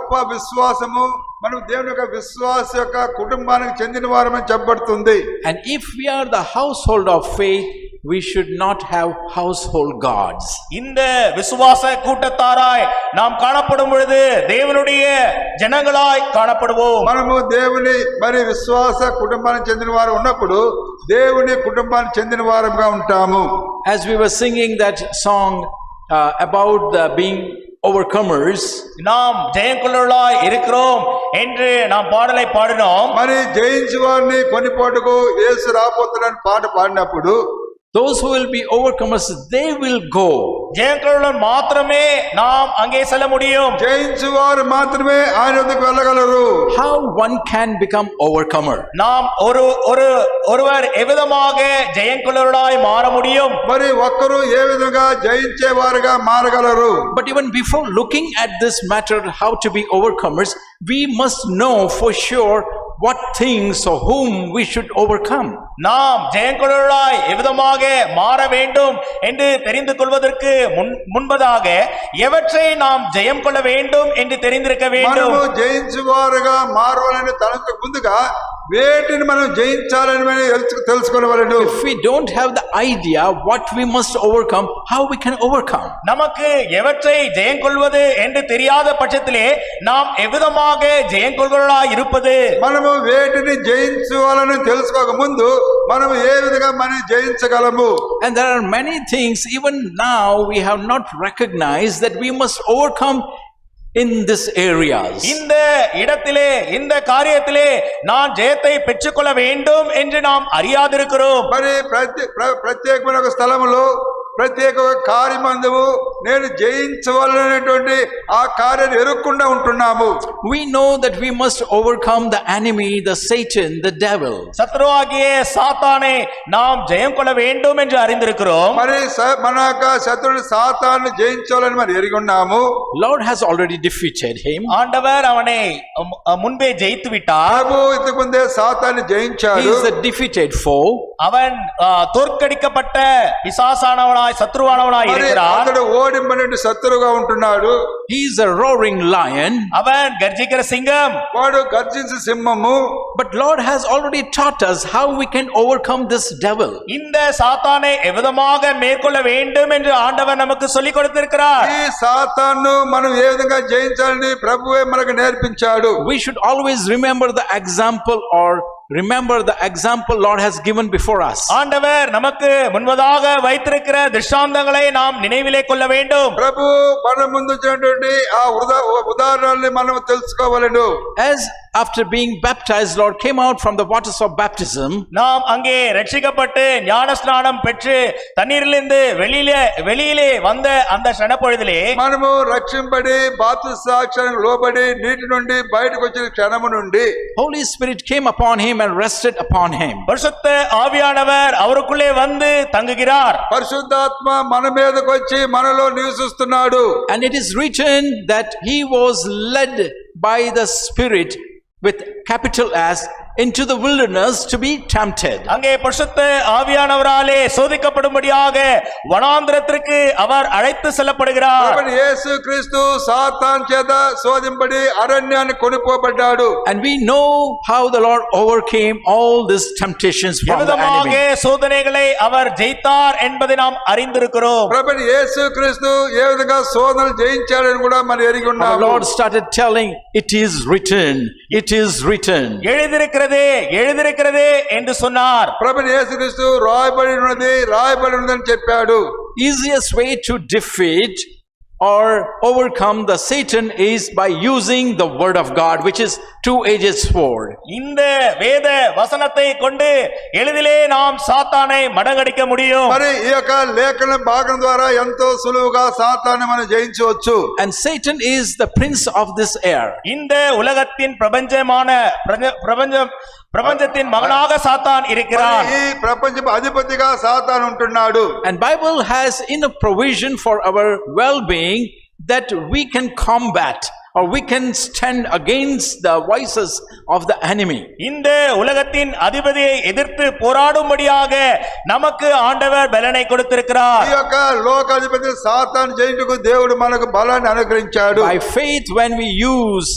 గొప్ప విశ్వాసము మనం దేవుని యొక్క విశ్వాస యొక్క కుటుంబానికి చెందిన వారమని చెప్పబడుతుంది And if we are the household of faith, we should not have household gods. இந்த விசுவாச கூட்டத்தாராய் நாம் காணப்படும் பொழுது தேவனுடைய ஜனங்களாய் காணப்படுவோம் మనము దేవుని మరి విశ్వాస కుటుంబానికి చెందిన వారు ఉన్నప్పుడు దేవుని కుటుంబానికి చెందిన వారంగా ఉంటాము As we were singing that song uh, about the being overcomers, நாம் ஜெயங்குள்ளர்களாய் இருக்கிறோம் என்று நாம் பாடலை பாடினோம் మరి జయించు వారిని కొనిపోటుకు యేసు రాబోతున్నాడని పాట పాడినప్పుడు those who will be overcomers, they will go. ஜெயங்குள்ளன் மாத்திரமே நாம் அங்கே செல்ல முடியும் జయించు వారు మాత్రమే ఆయన వద్దకు వెళ్ళగలరు How one can become overcomer? நாம் ஒரு ஒரு ஒருவர் எவ்விதமாக ஜெயங்குள்ளர்களாய் மாற முடியும் మరి ఒక్కరు ఏ విధంగా జయించే వారుగా మారగలరు But even before looking at this matter, how to be overcomers, we must know for sure what things or whom we should overcome. நாம் ஜெயங்குழலாய் எவ்விதமாக மாற வேண்டும் என்று தெரிந்து கொள்வதற்கு முன் முன்பதாக எவற்றை நாம் ஜெயம் கொள்ள வேண்டும் என்று தெரிந்திருக்க வேண்டும் మనము జయించు వారుగా మారవాలని తనకు ముందుగా వేటిని మనం జయించాలని మనం తెలుసు- తెలుసుకోవలను If we don't have the idea what we must overcome, how we can overcome? நமக்கு எவற்றை ஜெயம் கொள்வது என்று தெரியாத பட்சத்திலே நாம் எவ்விதமாக ஜெயம் கொள்கிறவர்களாய் இருப்பது మనము వేటిని జయించాలని తెలుసుకోక ముందు మనము ఏ విధంగా మనం జయించగలము And there are many things, even now, we have not recognized that we must overcome in these areas. இந்த இடத்திலே இந்த காரியத்திலே நான் ஜெயத்தை பெற்றுக்கொள்ள வேண்டும் என்று நாம் அறியாதிருக்கிறோம் మరి ప్రతి ప్ర- ప్రత్యేకమైన ఒక స్థలములో ప్రత్యేక కార్యమందుము నేను జయించవలనేటువంటి ఆ కార్యాన్ని ఎరుక్కుండా ఉంటున్నాము We know that we must overcome the enemy, the Satan, the devil. சத்ருவாகிய சாத்தானை நாம் ஜெயம் கொள்ள வேண்டும் என்று அறிந்திருக்கிறோம் మరి స- మన యొక్క శత్రుని సాతాన్ని జయించాలని మనం ఎరిగి ఉన్నాము Lord has already defeated him. Ah, ஆண்டவர் அவனை அம்- அ- முன்பே ஜெயித்து விட்டார் ప్రభు ఇంతకు ముందే సాతాన్ని He జయించాడు is the defeated foe. அவன் ஆ, தோற்கடிக்கப்பட்ட பிசாசானவனாய் சத்ருவானவனாய் మరి இருக்கிறான் అతడు ఓడింపనే శత్రువుగా ఉంటున్నాడు He is a roaring lion. அவன் கர்ஜிக்கிற சிங்கம் వాడు గర్జించు సింహము But Lord has already taught us how we can overcome this devil. இந்த சாத்தானை எவ்விதமாக மேற்கொள்ள வேண்டும் என்று ఆండవర్ நமக்கு சொல்லிக் கொடுத்திருக்கிறார் ఈ సాతాన్ను మనం ఏ విధంగా జయించాలని ప్రభువే మనకు నేర్పించాడు We should always remember the example or remember the example Lord has given before us. ஆண்டவர் நமக்கு முன்பதாக வைத்திருக்கிற திருஷ்டாந்தங்களை நாம் நினைவிலே கொள்ள வேண்டும் ప్రభు మన ముందు ఉంచినటువంటి ఆ ఉదా- ఉదాహరణల్ని మనం తెలుసుకోవాలను As after being baptized, Lord came out from the waters of baptism. நாம் அங்கே ரட்சிக்கப்பட்டு ஞான ஸ்நானம் பெற்று தண்ணீரிலிருந்து வெளியிலே வெளியிலே வந்த அந்த சனப்பொழுதிலே మనము రక్షింపడి బాతు సాక్ష్యానికి లోబడి నీటి నుండి బయటకు వచ్చిన క్షణము నుండి Holy Spirit came upon him and rested upon him. பரிசுத்த ஆவியானவர் அவருக்குள்ளே வந்து தங்குகிறார் పరిశుద్ధాత్మ మన మీదకు వచ్చి మనలో నివసిస్తున్నాడు And it is written that he was led by the Spirit with capital S into the wilderness to be tempted. அங்கே பரிசுத்த ஆவியானவராலே சோதிக்கப்படும்படியாக வனாந்திரத்திற்கு அவர் அழைத்து செல்லப்படுகிறார் కాబట్టి యేసు క్రీస్తు సాతాన్ చేత శోధింపడి అరణ్యాన్ని కొనిపోబడ్డాడు And we know how the Lord overcame all these temptations from the எவ்விதமாக enemy. சோதனைகளை அவர் ஜெயித்தார் என்பதை நாம் அறிந்திருக்கிறோம் కాబట్టి యేసు క్రీస్తు ఏ విధంగా శోధనలు జయించాడని కూడా మనం ఎరిగి Our ఉన్నాము Lord started telling, It is written, it is written. எழுதிருக்கிறதே எழுதிருக்கிறதே என்று சொன்னார் ప్రభు యేసుక్రీస్తు రాయబడి ఉన్నది రాయబడి ఉన్నదని చెప్పాడు Easiest way to defeat or overcome the Satan is by using the word of God, which is two-edged sword. இந்த வேத வசனத்தை கொண்டு எளிதிலே நாம் சாத்தானை மடங்கடிக்க முடியும் మరి ఈ యొక్క లేఖన భాగం ద్వారా ఎంతో సులువుగా సాతాన్ని మనం జయించవచ్చు And Satan is the prince of this air. இந்த ఉలగத்தின் ప్రపంచமான ప్రజ- ప్రపంచం ప్రపంచத்தின் மகனாக சாத்தான் మరి இருக்கிறான் ఈ ప్రపంచ అధిపతిగా సాతాను ఉంటున్నాడు And Bible has enough provision for our well-being that we can combat or we can stand against the voices of the enemy. இந்த உலகத்தின் அதிபதியை எதிர்த்து போராடும்படியாக நமக்கு ஆண்டவர் பலனை ఈ கொடுத்திருக்கிறார் యొక్క లోకాధిపతి సాతాను జయించుకు దేవుడు మనకు బలాన్ని అనుగ్రహించాడు By faith, when we use